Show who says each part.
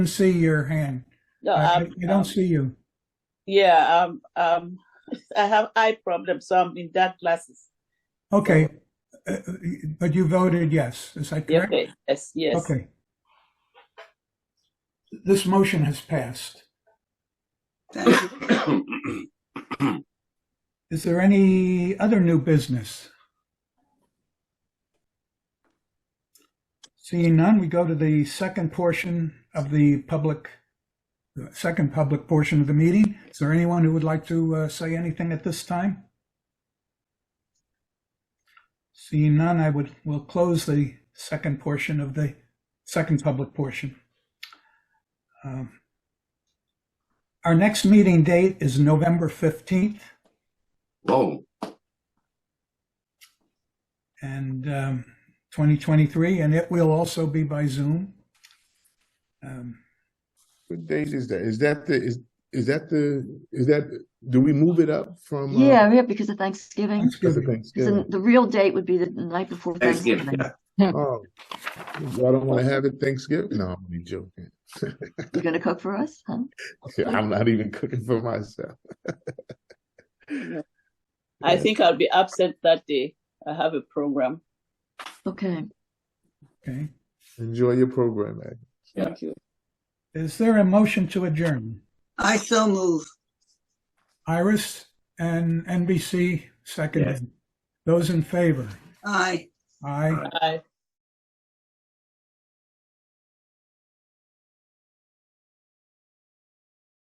Speaker 1: see your hand.
Speaker 2: No,
Speaker 1: I
Speaker 2: um,
Speaker 1: I don't
Speaker 2: um,
Speaker 1: see you.
Speaker 2: yeah, um, um, I have eye problems, so I'm in dark glasses.
Speaker 1: Okay, Uh, uh, but you voted yes, is that correct?
Speaker 2: Okay, yes, yes.
Speaker 1: Okay. This motion has passed.
Speaker 3: Thank you.
Speaker 1: Is there any other new business? Seeing none, we go to the second portion of the public, the second public portion of the meeting. Is there anyone who would like to uh, say anything at this time? Seeing none, I would, will close the second portion of the second public portion. Um, Our next meeting date is November 15th.
Speaker 3: Whoa,
Speaker 1: and um, 2023, and it will also be by Zoom. Um,
Speaker 4: What date is that? Is that the, is, is that the, is that, do we move it up from? uh,
Speaker 5: Yeah, yeah, because of Thanksgiving.
Speaker 4: Because
Speaker 1: Thanksgiving.
Speaker 4: of
Speaker 5: Because the-
Speaker 4: Thanksgiving.
Speaker 5: the real date would be the night before
Speaker 3: Thanksgiving,
Speaker 5: Thanksgiving.
Speaker 4: Oh, y'all don't want to have it Thanksgiving? No, I'm only joking.
Speaker 5: You're gonna cook for us, huh?
Speaker 4: I'm not even cooking for myself.
Speaker 2: I think I'll be absent that day. I have a program.
Speaker 5: Okay.
Speaker 1: Okay.
Speaker 4: Enjoy your program, man.
Speaker 3: Yeah.
Speaker 2: Thank you.
Speaker 1: Is there a motion to adjourn?
Speaker 3: I so move.
Speaker 1: Iris and NBC seconded. Those in favor?
Speaker 3: Aye.
Speaker 1: Aye.
Speaker 2: Bye.